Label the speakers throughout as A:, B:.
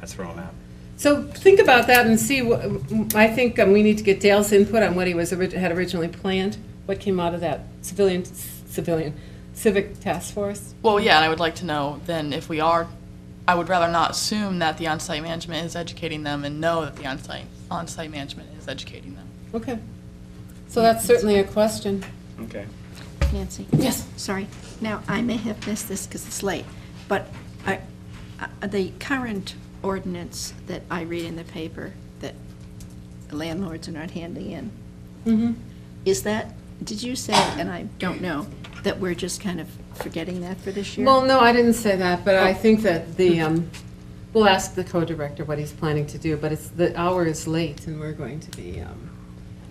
A: That's where I'm at.
B: So think about that and see, wh- I think um, we need to get Dale's input on what he was, orig- had originally planned, what came out of that civilian, civilian civic task force.
C: Well, yeah, and I would like to know then if we are, I would rather not assume that the on-site management is educating them and know that the on-site on-site management is educating them.
B: Okay. So that's certainly a question.
A: Okay.
D: Nancy?
B: Yes.
D: Sorry. Now, I may have missed this because it's late, but I- I- the current ordinance that I read in the paper that landlords are not handing in,
B: Mhm.
D: is that, did you say, and I don't know, that we're just kind of forgetting that for this year?
B: Well, no, I didn't say that, but I think that the, um, we'll ask the co-director what he's planning to do, but it's, the hour is late and we're going to be, um,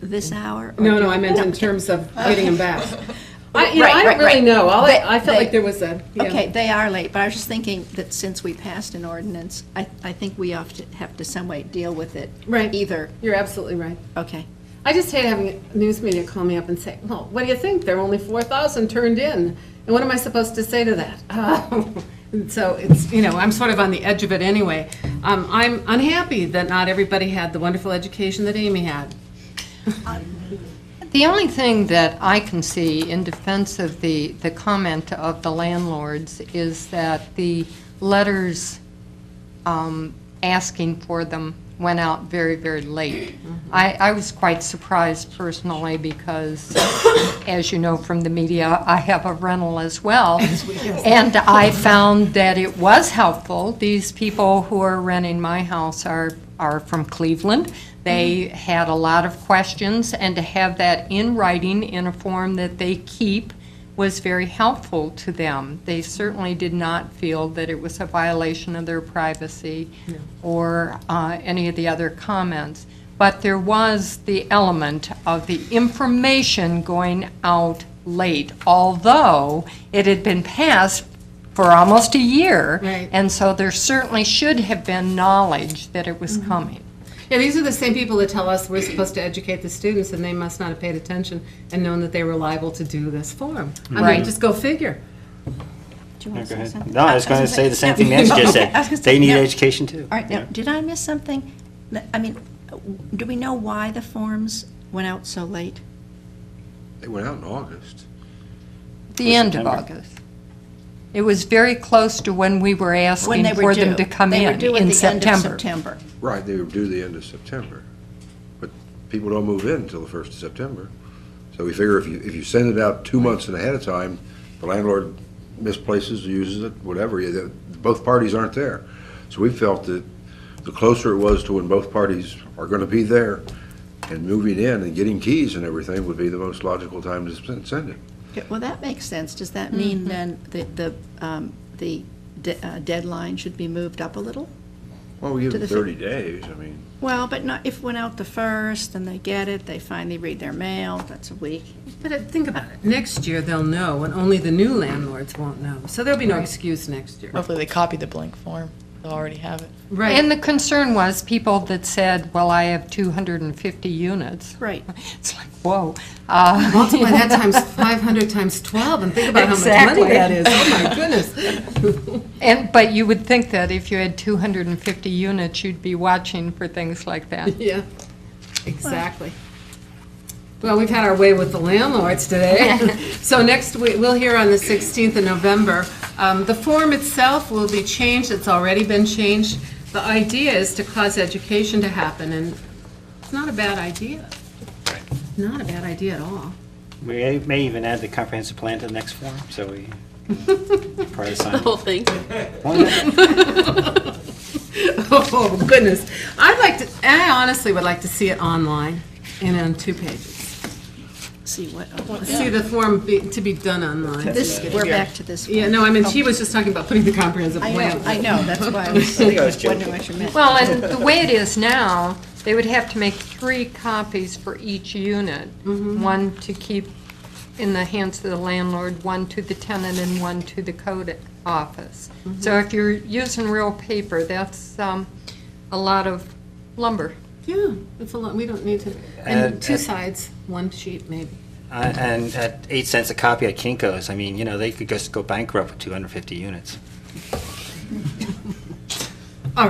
D: This hour? or
B: no,
D: do-
B: no, I meant in terms of getting him back. I, you know,
D: Right,
B: I don't
D: right,
B: really
D: right.
B: know. All I,
D: But
B: I felt like
D: they-
B: there was a, yeah.
D: Okay, they are late, but I was just thinking that since we passed an ordinance, I, I think we have to, have to some way deal with it.
B: Right.
D: Either,
B: You're absolutely right.
D: okay.
B: I just hate having news media call me up and say, well, what do you think? There are only 4,000 turned in. And what am I supposed to say to that? And So it's, you know, I'm sort of on the edge of it anyway. Um, I'm unhappy that not everybody had the wonderful education that Amy had.
E: The only thing that I can see in defense of the, the comment of the landlords is that the letters um, asking for them went out very, very late. I, I was quite surprised personally because, as you know from the media, I have a rental as well. And I found that it was helpful. These people who are renting my house are, are from Cleveland. They had a lot of questions, and to have that in writing in a form that they keep was very helpful to them. They certainly did not feel that it was a violation of their privacy or uh, any of the other comments. But there was the element of the information going out late, although it had been passed for almost a year.
B: Right.
E: And so there certainly should have been knowledge that it
D: Mm-hmm.
E: was coming.
B: Yeah, these are the same people that tell us we're supposed to educate the students and they must not have paid attention and known that they were liable to do this form. I mean,
E: Right.
B: just go figure.
D: Do you want to say something?
A: No, I was going to say the same thing Nancy just
D: Okay, I was gonna
A: said.
D: say,
A: They need
D: no.
A: education too.
D: All right,
A: Yeah.
D: now, did I miss something? Th- I mean, do we know why the forms went out so late?
F: They went out in August.
E: The end of
A: September.
E: August. It was very close to when we were
D: When
E: asking
D: they were
E: for them
D: due.
E: to come
D: They were
E: in,
D: due at
E: in
D: the end of
E: September.
D: September.
F: Right, they were due the end of September. But people don't move in until the first of September. So we figure if you, if you send it out two months and ahead of time, the landlord misplaces, uses it, whatever, you- that- both parties aren't there. So we felt that the closer it was to when both parties are gonna be there and moving in and getting keys and everything would be the most logical time to sen- send it.
D: Okay, Well, that makes sense. Does that mean
E: Mm-hmm.
D: then that the, um, the de- uh, deadline should be moved up a little?
F: Well, we give
D: To
F: them
D: the fi-
F: thirty days, I mean.
D: Well, but not, if it went out the first, and they get it, they finally read their mail, that's a week.
B: But uh, think about it, next year they'll know and only the new landlords won't know. So there'll be no excuse next year.
C: Hopefully, they copy the blank form. They'll already have it.
B: Right.
E: And the concern was people that said, well, I have 250 units.
D: Right.
E: It's like, whoa. Uh,
B: Multiply that times 500 times 12 and think about how much money
E: Exactly.
B: that is. Oh, my goodness.
E: And, but you would think that if you had 250 units, you'd be watching for things like that.
B: Yeah, exactly. Well, we've had our way with the landlords today. So next, we- we'll hear on the 16th of November. Um, The form itself will be changed, it's already been changed. The idea is to cause education to happen, and it's not a bad idea. Not a bad idea at all.
A: We may even add the comprehensive plan to the next form, so we prior to signing.
C: Whole thing.
A: Why not?
B: Oh, goodness. I'd like to, I honestly would like to see it online and on two pages.
D: See what,
B: See the form be- to be done online.
D: this, we're back to this
B: Yeah,
D: one.
B: no, I mean, she was just talking about putting the comprehensive
D: I
B: plan.
D: know, I know, that's why I was wondering what you meant.
E: Well, and the way it is now, they would have to make three copies for each unit. One to keep in the hands of the landlord, one to the tenant, and one to the code office. So if you're using real paper, that's um, a lot of lumber.
B: Yeah, it's a lot, we don't need to,
A: Uh,
B: and two
A: uh,
B: sides, one sheet maybe.
A: Uh, And at eight cents a copy at Kinko's, I mean, you know, they could just go bankrupt with 250 units.